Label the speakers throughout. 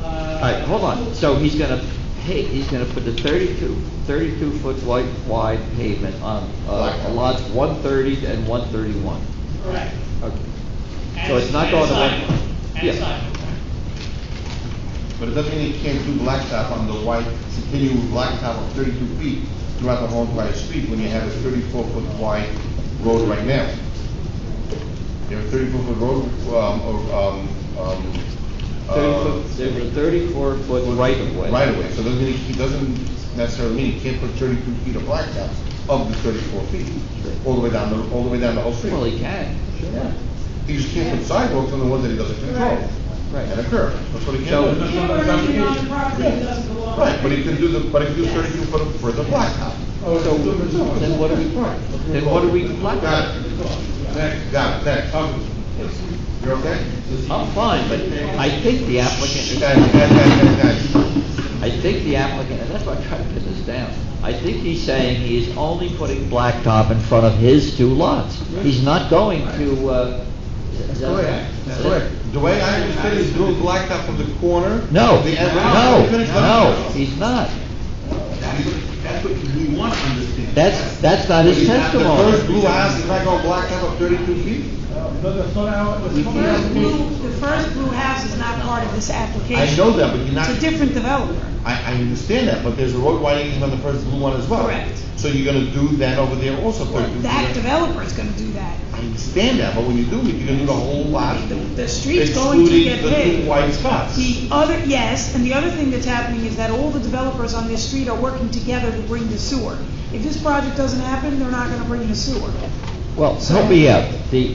Speaker 1: right, hold on, so he's gonna pay, he's gonna put the 32 32-foot wide, wide pavement on, uh,
Speaker 2: Blacktop.
Speaker 1: lots one thirty and one thirty-one.
Speaker 3: Correct.
Speaker 1: Okay.
Speaker 3: And-
Speaker 1: So it's not going to
Speaker 3: And
Speaker 1: one-
Speaker 3: sidewalk. And
Speaker 1: Yeah.
Speaker 3: sidewalk.
Speaker 2: But it doesn't mean you can't do blacktop on the white, continue blacktop of thirty-two feet throughout the whole entire street when you have a thirty-four foot wide road right now. You have a thirty-four foot road, um, or, um, um. uh,
Speaker 1: Thirty-foot, there's a thirty-four foot right of way.
Speaker 2: Right away, so it doesn't mean, it doesn't necessarily mean you can't put thirty-two feet of blacktop of the thirty-four feet,
Speaker 1: Sure.
Speaker 2: all the way down, the all the way down the whole street.
Speaker 1: Well, he can,
Speaker 2: Yeah. You just can't put sidewalks on the ones that he doesn't control, and a
Speaker 1: right.
Speaker 2: curb, that's what he
Speaker 1: So-
Speaker 2: can do.
Speaker 3: Even if you're on the property, it doesn't belong.
Speaker 2: Right, but he can do the, but if you thirty-two foot of- for the blacktop.
Speaker 4: Oh,
Speaker 1: So,
Speaker 4: it's-
Speaker 1: then what do we, then what do we block
Speaker 2: Got it. Next, got it, next. You're okay?
Speaker 1: I'm fine, but I think the applicant
Speaker 2: Guys,
Speaker 1: is
Speaker 2: guys, guys, guys, guys.
Speaker 1: I think the applicant, and that's why I'm trying to pin this down, I think he's saying he is only putting blacktop in front of his two lots. He's not going to, uh... is that-
Speaker 2: Correct, correct. The way I understand is doing blacktop from the corner.
Speaker 1: No,
Speaker 2: of the end-
Speaker 1: no,
Speaker 2: Finish that.
Speaker 1: no, he's not.
Speaker 5: That's what, that's what we want to understand.
Speaker 1: That's, that's not his
Speaker 2: The first
Speaker 1: testimony.
Speaker 2: blue house is not gonna blacktop up thirty-two feet?
Speaker 4: No, that's not how, that's
Speaker 2: We
Speaker 4: not
Speaker 2: can't
Speaker 4: how.
Speaker 2: do
Speaker 6: First Blue, the first Blue House is not part of this
Speaker 2: I
Speaker 6: application.
Speaker 2: know that, but you're not,
Speaker 6: It's a different developer.
Speaker 2: I, I understand that, but there's a road widening on the first blue one as well.
Speaker 6: Correct.
Speaker 2: So you're gonna do that over there also thirty-two feet.
Speaker 6: That developer is gonna do that.
Speaker 2: I understand that, but when you do it, you're gonna do the whole lot.
Speaker 6: The, the street's going to
Speaker 2: excluding
Speaker 6: get
Speaker 2: the two
Speaker 6: paved.
Speaker 2: white spots.
Speaker 6: The other, yes, and the other thing that's happening is that all the developers on this street are working together to bring the sewer. If this project doesn't happen, they're not gonna bring the sewer.
Speaker 1: Well, help me out, the,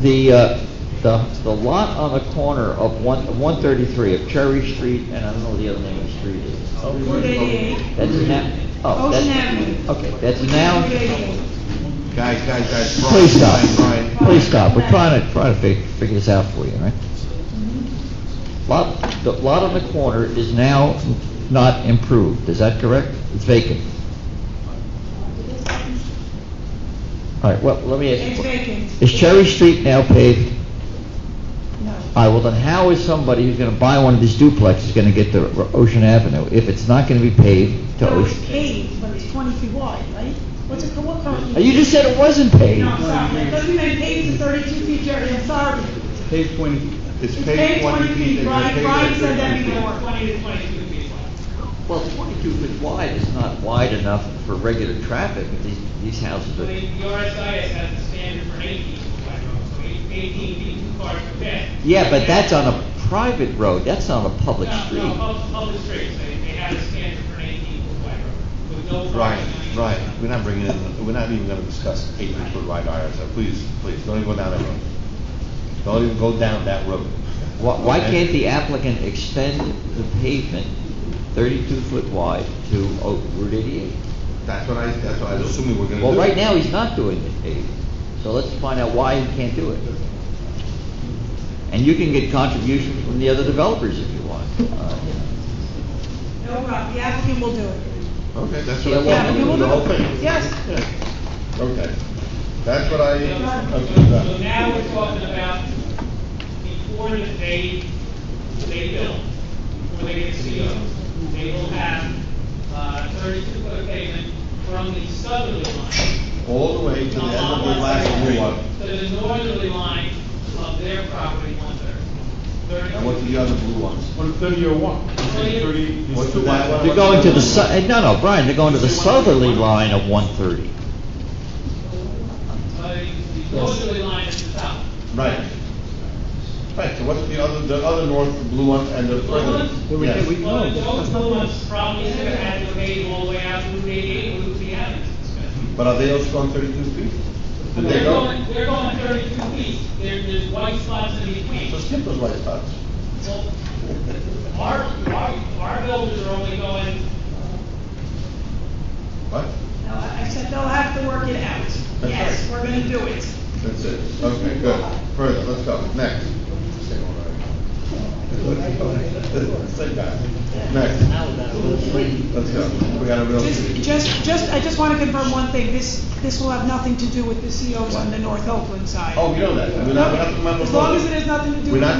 Speaker 1: the, uh, the, the lot on the corner of one, one thirty-three of Cherry Street, and I don't know what the other name of the street is.
Speaker 6: Route 88,
Speaker 1: That's now, oh, that's,
Speaker 6: Ocean Avenue.
Speaker 1: okay, that's now...
Speaker 6: Route 88.
Speaker 2: Guys, guys, guys. Brian,
Speaker 1: Please stop.
Speaker 2: Brian, Brian.
Speaker 1: Please stop. We're trying to, trying to fi- figure this out for you, all right? Lot, the lot on the corner is now not improved, is that correct? It's vacant. All right, well, let me ask
Speaker 6: It's
Speaker 1: you. a que-
Speaker 6: vacant.
Speaker 1: Is Cherry Street now paved?
Speaker 6: No.
Speaker 1: All right, well, then how is somebody who's gonna buy one of these duplexes gonna get to Ro- Ocean Avenue if it's not gonna be paved to
Speaker 6: No, it's
Speaker 1: Ocean?
Speaker 6: paved, but it's twenty feet wide, right? What's it, what
Speaker 1: Uh,
Speaker 6: currently?
Speaker 1: You just said it wasn't paved.
Speaker 6: No, I'm sorry, it doesn't mean paved to thirty-two feet, Jerry, I'm sorry.
Speaker 4: Page twenty.
Speaker 2: It's
Speaker 6: It's
Speaker 2: paid twenty feet. and
Speaker 6: Brian,
Speaker 2: you're paid
Speaker 6: Brian said that
Speaker 2: 32 feet.
Speaker 6: before.
Speaker 3: Twenty to twenty-two feet wide.
Speaker 1: Well, twenty-two foot wide is not wide enough for regular traffic, but these, these houses
Speaker 3: So the
Speaker 1: are,
Speaker 3: RSIS has a standard for eighteen feet wide roads, so eight- eighteen feet, two cars per bed.
Speaker 1: yeah, but that's on a private road, that's not a public
Speaker 3: No,
Speaker 1: street.
Speaker 3: No, public, public streets, they, they have a standard for an eighteen foot wide road, with no.
Speaker 2: Brian,
Speaker 3: parking on either
Speaker 2: Brian,
Speaker 3: side.
Speaker 2: we're not bringing in, we're not even gonna discuss eight hundred foot wide irons, so please, please, don't even go down that road. Don't even go down that road.
Speaker 1: Why, why
Speaker 2: Okay.
Speaker 1: can't the applicant extend the pavement thirty-two foot wide to O- Route eighty-eight?
Speaker 2: That's what I, that's what I was assuming we're gonna do.
Speaker 1: Well, right now, he's not doing the paved, so let's find out why he can't do it. And you can get contributions from the other developers if you want. Uh,
Speaker 6: No problem, the applicant will do it.
Speaker 2: Okay, that's
Speaker 1: Yeah,
Speaker 2: what I
Speaker 1: well,
Speaker 2: want, we're gonna do the whole thing.
Speaker 6: Yes.
Speaker 2: Yeah. Okay, that's what I.
Speaker 3: So so now we're talking about before that they, they build, before they get COs, they will have, uh, thirty-two foot of pavement from the southerly line
Speaker 2: All the way to the end of the last blue one.
Speaker 3: To the northerly line of their property, one thirty.
Speaker 2: And what's the other blue ones?
Speaker 4: One thirty or one?
Speaker 3: Thirty.
Speaker 4: Thirty.
Speaker 2: What's the white one?
Speaker 1: They're going to the, su- eh, no, no, Brian, they're going to the southerly line of one thirty.
Speaker 3: Uh, the northerly line is the south.
Speaker 2: Right. Right, so what's the other, the other north blue one and the further?
Speaker 3: Blue
Speaker 4: one?
Speaker 2: Yes.
Speaker 4: We-
Speaker 3: Well,
Speaker 4: no,
Speaker 3: those
Speaker 4: that's not
Speaker 3: blue
Speaker 4: right.
Speaker 3: ones probably should have had to pay all the way out to eighty-eight, Route the Avenue.
Speaker 2: But are they also going thirty-two feet? Did they
Speaker 3: They're
Speaker 2: go?
Speaker 3: going, they're going thirty-two feet, there, there's white spots in between.
Speaker 2: So skip those white spots.
Speaker 3: Well, Our, our, our builders are only going,
Speaker 2: What?
Speaker 6: No, I I said they'll have to work it out.
Speaker 2: That's
Speaker 6: Yes,
Speaker 2: right.
Speaker 6: we're gonna do it.
Speaker 2: That's it. Okay, good. Further, let's go. Next. Same guy. Next. Let's go. We got a real.
Speaker 6: Just, just, just, I just wanna confirm one thing, this, this will have nothing to do with the COs on the North Oakland side.
Speaker 2: Oh, you Oh, know that. We're not, we're not.
Speaker 6: As long as it has nothing to do
Speaker 2: We're
Speaker 6: with.
Speaker 2: not